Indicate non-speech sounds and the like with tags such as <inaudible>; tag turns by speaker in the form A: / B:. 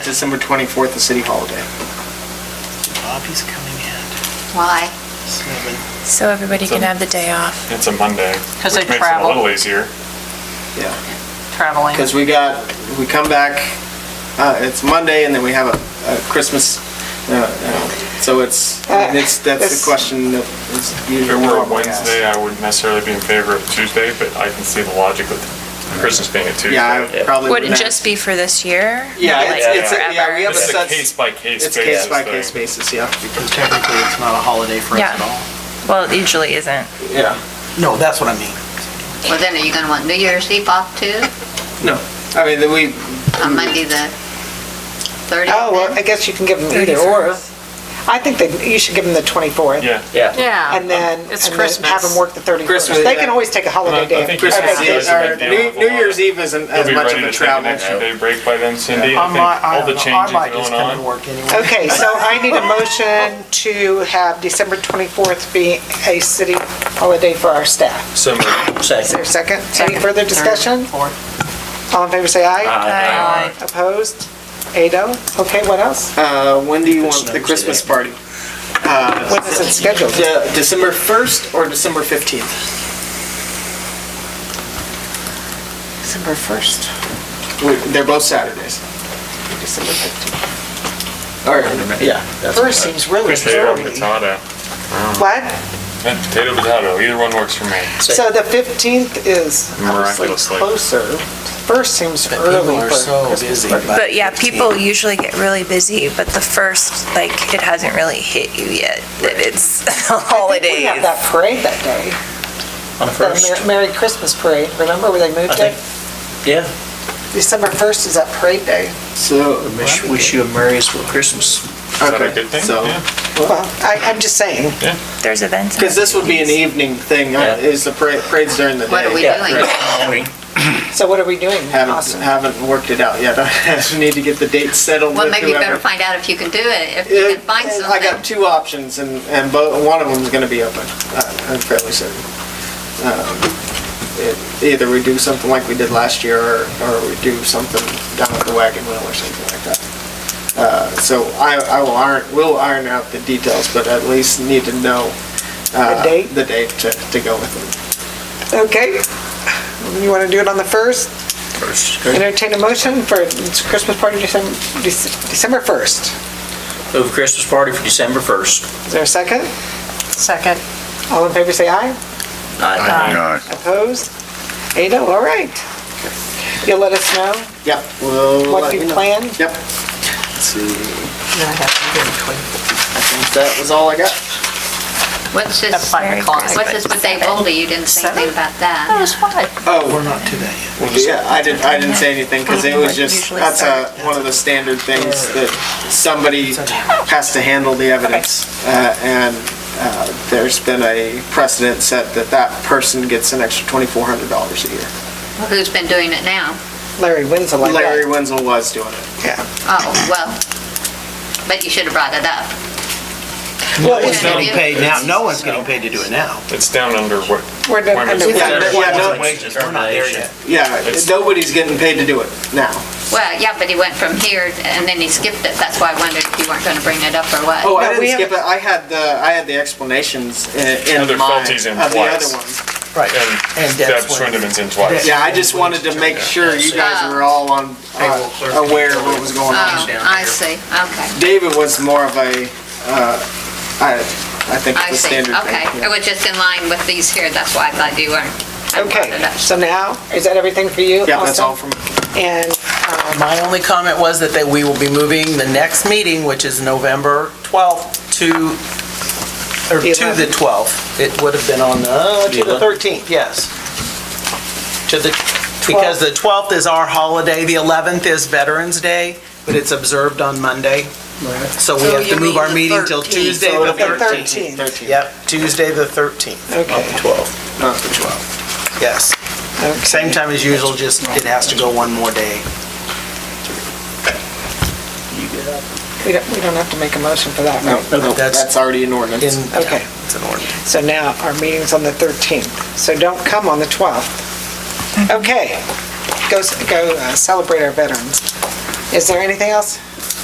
A: December 24th, a city holiday.
B: Bobby's coming in.
C: Why?
B: Seven.
D: So everybody can have the day off.
E: It's a Monday.
F: 'Cause
E: which
F: they
E: makes it a
F: travel.
E: little easier.
A: Yeah,
F: traveling.
A: because we got, we come back, uh, it's Monday, and then we have a a Christmas, uh, uh, so it's, I mean, it's, that's the question that is
E: If
A: usually
E: it were a
A: normally asked.
E: Wednesday, I wouldn't necessarily be in favor of Tuesday, but I can see the logic with Christmas being a Tuesday.
A: Yeah, I probably
D: Would
A: wouldn't.
D: it just be for this year?
A: Yeah,
D: Not
A: it's,
D: like
A: it's, a- yeah,
D: forever?
A: we have a
E: It's a
A: set,
E: case by case
A: it's
E: basis.
A: case by case
E: thing.
A: basis, yeah.
B: Because technically, it's not a holiday for us
D: Yeah.
B: at all.
D: Well, it usually isn't.
A: Yeah.
B: No, that's what I mean.
C: Well, then are you gonna want New Year's Eve off too?
A: No, I mean, then we,
C: On Monday the 30th?
G: Oh, well, I guess you can give them either or. I think that you should give them the 24th.
E: Yeah.
F: Yeah.
G: And then,
F: It's
G: and then have them
F: Christmas.
G: work the 31st.
A: Christmas,
G: They can
A: yeah.
G: always take a holiday
E: Well, I
G: day.
E: think
G: or
A: Christmas
G: vacation.
A: Eve,
E: Christmas
A: or
E: Eve,
A: New, New Year's Eve isn't
E: You'll
A: as
E: be
A: much
E: ready
A: of
E: to
A: a
E: take an
A: travel.
E: extra day break by then, Cindy. I
B: I might, I
E: think all the
B: don't know.
E: changes
B: I might just
E: going
B: come and
E: on.
B: work anyway.
G: Okay, so I need a motion to have December 24th be a city holiday for our staff.
E: So
G: Is there a second? Any further discussion?
B: Fourth.
G: All in favor, say aye.
D: Aye.
G: Opposed? Ado? Okay, what else?
A: Uh, when do you want the Christmas party?
G: When is it scheduled?
A: De- December 1st or December 15th?
G: December 1st,
A: We- They're both Saturdays.
G: December 15th.
A: Or, yeah. that's-
G: First seems really
E: potato
G: early.
E: potato.
G: What?
E: Yeah, Potato potato. Either one works for me.
G: So the 15th is obviously
E: Miraculously.
G: closer. First seems early, but Christmas party.
D: But yeah, people usually get really busy, but the first, like, it hasn't really hit you yet that it's <laughs>
G: We have
D: holidays.
G: that parade that day.
H: On the
G: The
H: first?
G: Mer- Merry Christmas Parade, remember where they
H: I
G: moved
H: think,
G: it?
H: yeah.
G: December 1st is that parade day.
A: So,
H: Wish, wish you a merriest for Christmas.
E: Is that a
A: Okay,
E: good thing?
A: so-
E: Yeah.
G: Well, I, I'm just saying,
D: There's events.
A: because this would be an evening thing, uh,
H: Yeah.
A: is the parade, parade's during the day.
C: What are we
H: Yeah.
C: doing?
H: Halloween.
G: so what are we doing,
A: Haven't,
G: Austin?
A: haven't worked it out yet. <laughs> I need to get the date settled
C: Well,
A: with
C: maybe you better
A: whoever.
C: find out if you can do it, if you
A: Yeah,
C: can find
A: I got
C: something.
A: two options and, and both, one of them's gonna be open, uh, I'm fairly certain. Um, it- Either we do something like we did last year or, or we do something down at the wagon wheel or something like that. Uh, so I, I will iron, we'll iron out the details, but at least need to know. uh,
G: The date?
A: The date to, to go with
G: Okay, you want to do it on the 1st?
H: First.
G: Entertain a motion for Christmas party December, December 1st.
H: Move Christmas party for December 1st.
G: Is there a second?
F: Second.
G: All in favor, say aye.
H: Aye.
G: Opposed? Ada, all right. You'll let us know
A: it. Yep, we'll.
G: what
A: let
G: you
A: know.
G: plan?
A: Yep. Let's see, I think that was all I got.
C: What's
F: At
C: this,
F: five o'clock.
C: what's this with Dave Oldie? You didn't say anything
F: Seven?
C: about that.
F: That was fun.
A: Oh,
B: We're not to that yet.
A: Yeah, I didn't, I didn't say anything, because it was just,
D: Usually
A: that's a, one of the standard things that somebody has to handle the evidence. Uh, And uh, there's been a precedent set that that person gets an extra twenty-four hundred dollars a year.
C: Who's been doing it now?
G: Larry Winslow, I bet.
A: Larry Wenzel was doing it.
C: Oh, well, but you should have brought it up.
B: Well, it's
C: Yeah.
B: getting paid now. No one's getting paid to do it now.
E: It's down under what?
G: We're done-
E: Wait a minute.
G: under-
A: Yeah,
H: Whatever
A: yeah,
H: one's
A: no-
H: wages
B: We're not there yet.
A: Yeah,
E: It's-
A: nobody's getting paid to do it now.
C: Well, yeah, but he went from here and then he skipped it. That's why I wondered if you weren't gonna bring it up or what.
A: Oh, I
G: No, we
A: didn't skip it,
G: haven't-
A: I had the, I had the explanations in
E: Other
A: in mind of
E: faulties in
A: the
E: place.
A: other ones.
B: Right.
E: And
B: And
E: Deb
B: that's when-
E: Swindeman's in twice.
A: Yeah, I just wanted to make sure you guys were all on,
H: Payroll clerk.
A: uh, aware of what was going on.
C: Oh, I see, okay.
A: David was more of a, uh, I, I think
C: I
A: it's a
C: see,
A: standard thing.
C: okay.
A: yeah.
C: It was just in line with these here, that's why I thought you weren't. I brought it
G: Okay,
C: up.
G: so now, is that everything for you?
A: Yeah, that's
G: Austin?
A: all from,
G: And
I: My only comment was that they- we will be moving the next meeting, which is November 12th, to, or
G: The
I: to the
G: 11th.
I: 12th. It would have been on the, to the 13th, yes. To the, because the 12th is our holiday, the 11th is Veterans Day, but it's observed on Monday. So we
F: So
I: have
F: you
I: to move our
F: mean the
I: meeting till
F: 13th.
I: Tuesday
G: the
I: the 13th.
G: 13th,
I: Yep, Tuesday the 13th,
G: okay.
I: 12th,
A: not the 12.
I: yes. Same time as usual, just it has to go one more day.
G: We don't, we don't have to make a motion for that, right?
A: No, no,
I: That's-
A: that's already an ordinance.
I: In-
G: Okay.
I: It's an order.
G: So now, our meeting's on the 13th, so don't come on the 12th. Okay, go, s- go uh, celebrate our veterans. Is there anything else?